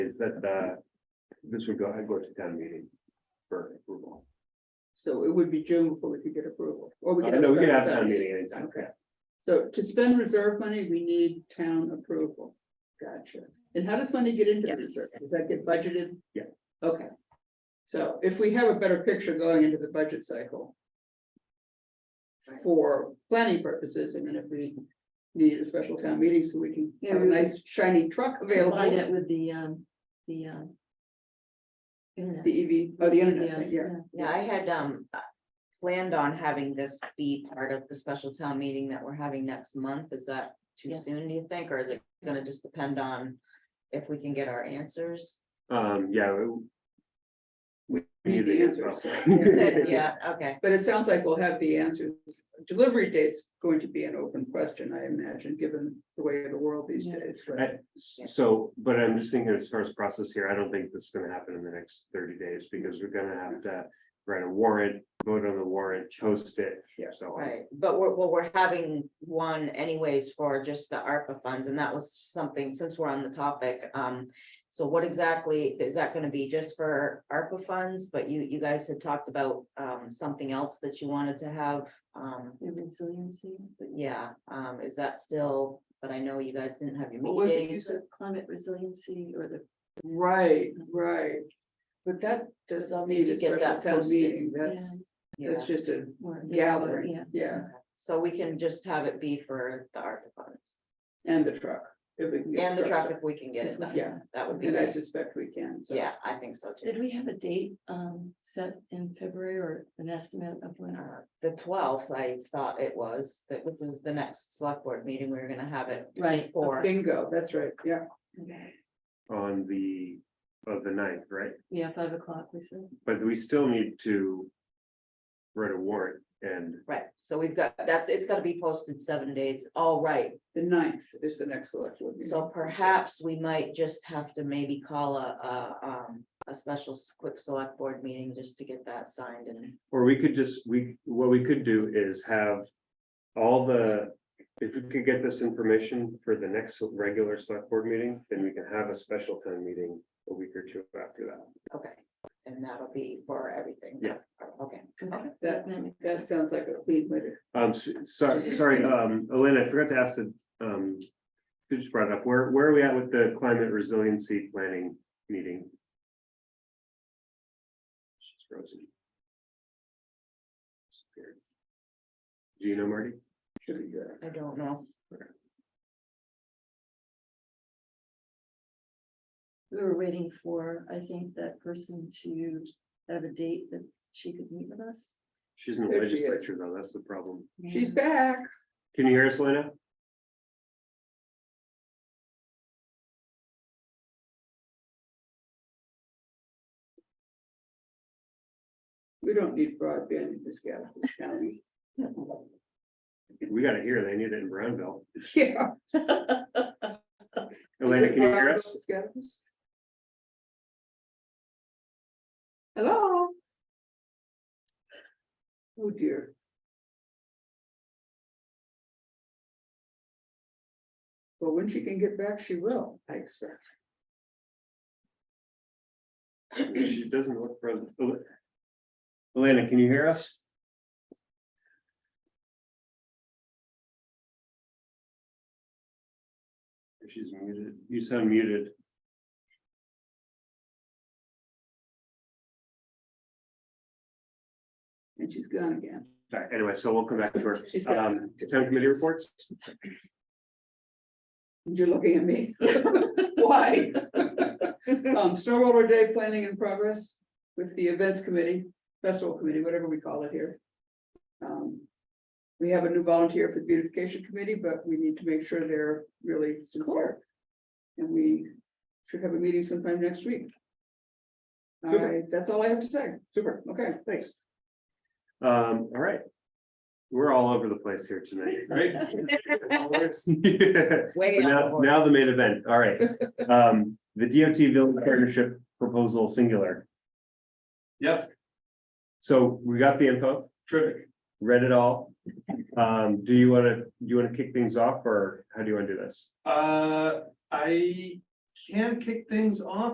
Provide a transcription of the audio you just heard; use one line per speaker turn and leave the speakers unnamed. that, uh, this would go, I'd go to town meeting for approval.
So it would be June before we could get approval, or we
Uh,
could.
No, we
a
can have
special
town meeting anytime.
Okay. So to spend reserve money, we need town approval. Gotcha. And how does money get into
Yes.
reserve? Does that get budgeted?
Yeah.
Okay. So if we have a better picture going into the budget cycle. For planning purposes, and then if we need a special town meeting so we can have a
Yeah, we-
nice shiny truck
Combine
available,
it with the, um, the, um. Internet.
the EV, oh, the internet,
Yeah,
thing, yeah.
Yeah, I had um uh, planned on having this be part of the special town meeting that we're having next month. Is that too
Yeah.
soon, do you think, or is it gonna just depend on if we can get our answers?
Um, yeah. we- We need
Need the
the answer.
answers. Yeah.
Yeah, okay,
But it sounds like we'll have the answers. Delivery date's going to be an open question, I imagine, given the way of the world these
Yeah.
days.
I-
But
So, but I'm just thinking as far as process here, I don't think this is gonna happen in the next thirty days because we're gonna have to write a warrant, vote on the warrant, post it.
Yeah.
So on.
right, but we're, well, we're having one anyways for just the ARPA funds, and that was something, since we're on the topic, um. So what exactly, is that gonna be just for ARPA funds, but you, you guys had talked about um something else that you wanted to have, um.
The Resiliency.
But yeah, um, is that still, but I know you guys didn't have your
What was it you
meeting.
Use of climate resiliency or the,
right, right. But that does
I'll
need
need
a
to get
special
that
town
posted.
meeting.
yeah,
That's, that's
Yeah.
just a
or-
gathering,
Yeah.
yeah,
So we can just have it be for the ARPA funds
and the truck. if we can get
and the truck
truck.
if we can get it done.
Yeah,
That would be,
and I
great.
suspect we can, so.
yeah, I think so
Did
too.
we have a date, um, set in February or an estimate of when our,
Uh, The twelfth, I thought it was, that which was the next select board meeting. We were gonna have it
right?
for.
Bingo, that's right, yeah.
okay,
On the, of the ninth, right?
Yeah, five o'clock, we said.
But we still need to write a warrant and
Right, so we've got, that's, it's gotta be posted seven days. All right,
The ninth is the next select board meeting.
So perhaps we might just have to maybe call a, a, um, a special s- quick select board meeting just to get that signed and.
Or we could just, we, what we could do is have all the, if we could get this information for the next regular select board meeting, then we can have a special town meeting a week or two after that.
Okay, and that'll be for everything.
Yeah.
Okay,
Okay,
That-
makes
That
sense.
sounds like a clean way to
Um, s- sorry, sorry, um, Elena, I forgot to ask the, um, you just brought it up, where, where are we at with the climate resiliency planning meeting? She's frozen. Disappeared. Do you know Marty?
should be good.
I don't know.
We were waiting for, I think, that person to have a date that she could meet with us.
She's in the
There she is.
legislature though, that's the problem.
She's back.
Can you hear us, Elena?
We don't need broadband in this gal- this county.
We gotta hear, they need it in Brownville.
Yeah.
Elena, can you hear us?
Hello? Oh dear. Well, when she can get back, she will, I expect.
She doesn't look present. Ele- Elena, can you hear us? She's muted. You sound muted.
And she's gone again.
All right, Anyway, so we'll come back to her.
She's got-
Um, town committee reports.
You're looking at me. Why? Um, Snowroller Day planning in progress with the events committee, festival committee, whatever we call it here. Um, We have a new volunteer for the beautification committee, but we need to make sure they're really sincere. And we should have a meeting sometime next week. All
Super.
right, that's all I have to say.
Super,
Okay.
thanks. Um, all right. We're all over the place here tonight, right? Yeah.
Way
But
out of
Now,
order.
now the main event, all right. Um, the DOT Village Partnership Proposal Singular. Yep. So we got the info. Terrific. Read it all. Um, do you wanna, do you wanna kick things off or how do you wanna do this?
Uh, I can kick things off.